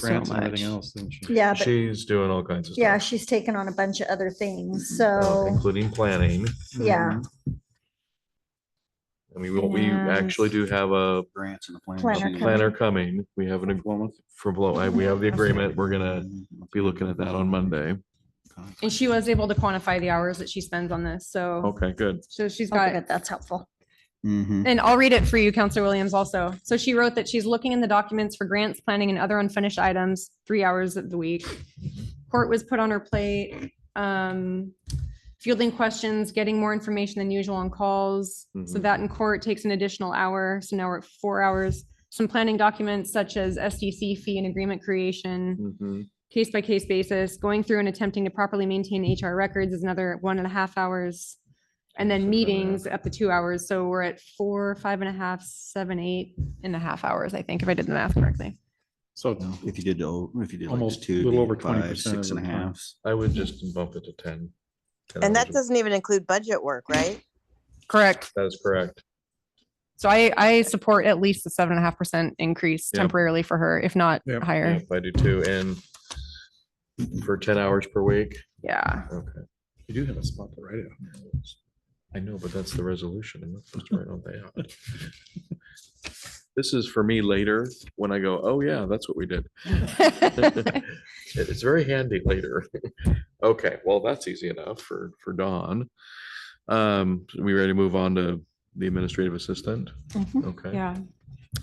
grants so and everything much. else, didn't she? Yeah, but She's doing all kinds of yeah, stuff, she's taken on a bunch of other things. uh, Mm-hmm. So including planning. yeah, Mm-hmm. Mhm. I mean, we- we actually do have a grants and the Planner plan. coming. planner coming. We have an, ag- for blow, we have the agreement. We're gonna Mm-hmm, be looking at that on Monday. And she was able to quantify the hours that she spends on this. Oh. So, Okay, good. so she's Oh, got good, that's helpful. Mhm. And I'll read it for you, Counselor Williams also. So she wrote that she's looking in the documents for grants, planning and other unfinished items, three hours of the week. Court was put on her plate, um, fielding questions, getting more information than usual on calls. So Mm-hmm. Mhm. that in court takes an additional hour. So now we're at four hours. Some planning documents such as SDC fee and agreement creation Mhm. case by case basis, going through and attempting to properly maintain HR records is another one and a half hours. And then Something like meetings up to two hours. So we're at four, five and a half, seven, eight and a half hours, I think, if I did the math correctly. So No, If you did, the old- if you did like Almost just two. a little it'd be over 20% five, Six of and a the time. half. I would just bump it to ten. 10 And hours that a- doesn't even include budget work, right? Correct. That is correct. So I, I support at least the seven and a half percent increase Yep. temporarily for her, if not Yep, higher. Yep, I do too. And for ten hours per week. Yeah. Okay. you do have a spot to write it. on. I know, but that's the resolution. I'm not supposed to write all that out. This is for me later when I go, oh yeah, that's what we did. It- It's very handy later. Okay, well, that's easy enough for, for Dawn. Um, we ready to move on to the administrative assistant? Mhm. Okay, Yeah.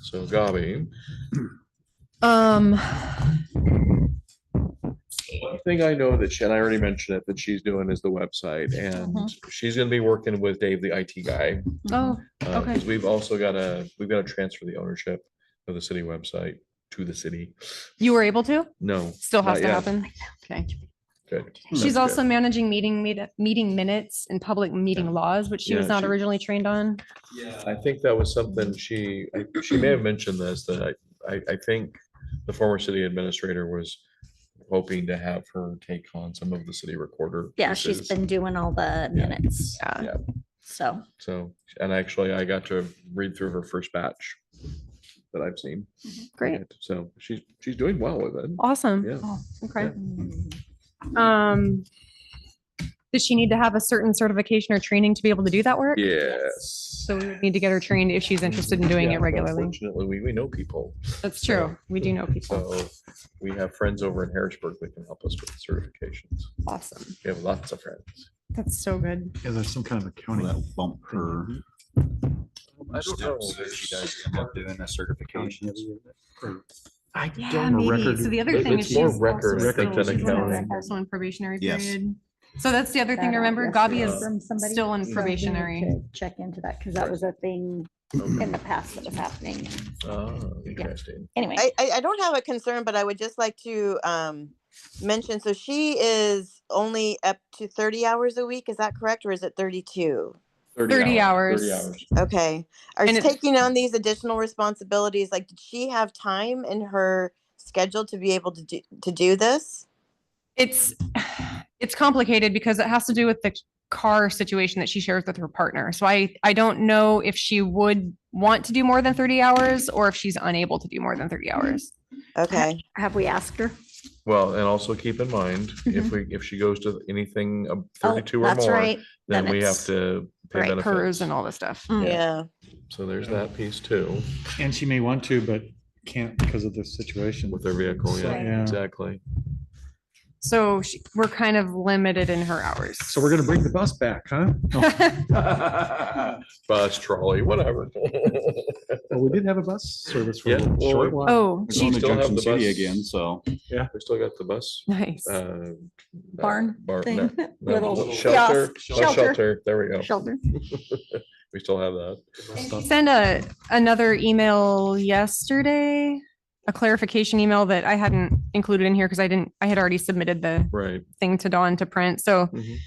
so Gabi, Um, one thing I know that she, and I already mentioned it, that she's doing is the website and she's gonna be working with Dave, the IT guy. Mm-hmm. oh, Uh, Okay. 'cause We've also got to, we've got to transfer the ownership of the city website to the city. you were able to? No, Still has Not to yet. happen? Okay. good. That's She's good. also managing meeting, meet- meeting minutes and public meeting laws, which she was Yeah, not she- originally trained on. I think that was something she, I- she may have mentioned this, that I, I, I think the former city administrator was hoping to have her take on some of the city recorder. Yeah, she's pieces. been doing all the minutes. Yeah. Yeah. So So, and actually I got to read through her first batch that I've seen. Great. So she's, she's doing well with it. Awesome. Oh, Yeah. Okay. Mm, Um, does she need to have a certain certification or training to be able to do that work? Yes. So we would need to get her trained if she's interested in doing Yeah, it regularly. Fortunately, we, we know people. That's true. We do know people. So we have friends over in Harrisburg that can help us with certifications. Awesome. We have lots of friends. That's so good. Yeah, there's some kind of Will accounting. that bump her? steps if She does end up doing the certifications. I Yeah, maybe. So the other It- thing is it's she's more also record, I think, still- than she's also accounting. also in probationary Yes. period. So that's the other thing that to out remember. yesterday Gabi is from somebody, still in so I do need probationary. to Check into that because that was a thing in the past that was happening. Ah, Interesting. Anyway, I, I, I don't have a concern, but I would just like to, um, mention, so she is only up to thirty hours a week, is that correct, or is it thirty-two? 30 hours. Thirty hours. Okay, are And you it- taking on these additional responsibilities, like, did she have time in her schedule to be able to do, to do this? It's it's complicated because it has to do with the car situation that she shares with her partner. So I I don't know if she would want to do more than 30 hours or if she's unable to do more than 30 hours. Okay, have we asked her? Well, and also keep in mind, if Mhm. we, if she goes to anything of Mm-hmm. Oh, thirty-two or that's more, right. then then we have it's- to pay Right, hers benefits. and all this stuff. yeah, So there's that piece too And she may want to, but can't because of the situation. with their vehicle. So, Yeah, exactly. So she, we're kind of limited in her hours. So we're gonna bring the bus back, huh? No. Bus, trolley, whatever. Well, Oh, we did have a bus service for a Yeah, little well, short while. Oh, We're She going Mm-hmm. to still have Junction the City bus. again, so. We still got the bus nice. uh, Barn bar- thing. no, no, Little little kiosk, Shelter, bus shelter. shelter, there we go. Shelter. We still have that. Send a another email yesterday, a clarification email that I hadn't included in here because I didn't I had already submitted the Right. thing to Dawn to print. So Mhm.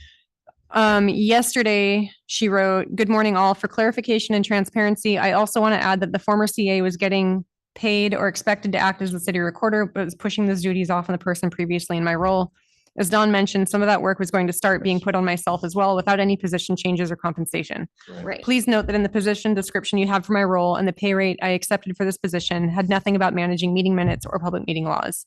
um, yesterday she wrote, good morning all for clarification and transparency. I also want to add that the former CA was getting paid or expected to act as the city recorder, but was pushing those duties off on the person previously in my role. As Dawn mentioned, some of that work was going to start being put on myself as well without any position changes or compensation. Right. Please note that in the position description you had for my role and the pay rate I accepted for this position had nothing about managing meeting minutes or public meeting laws.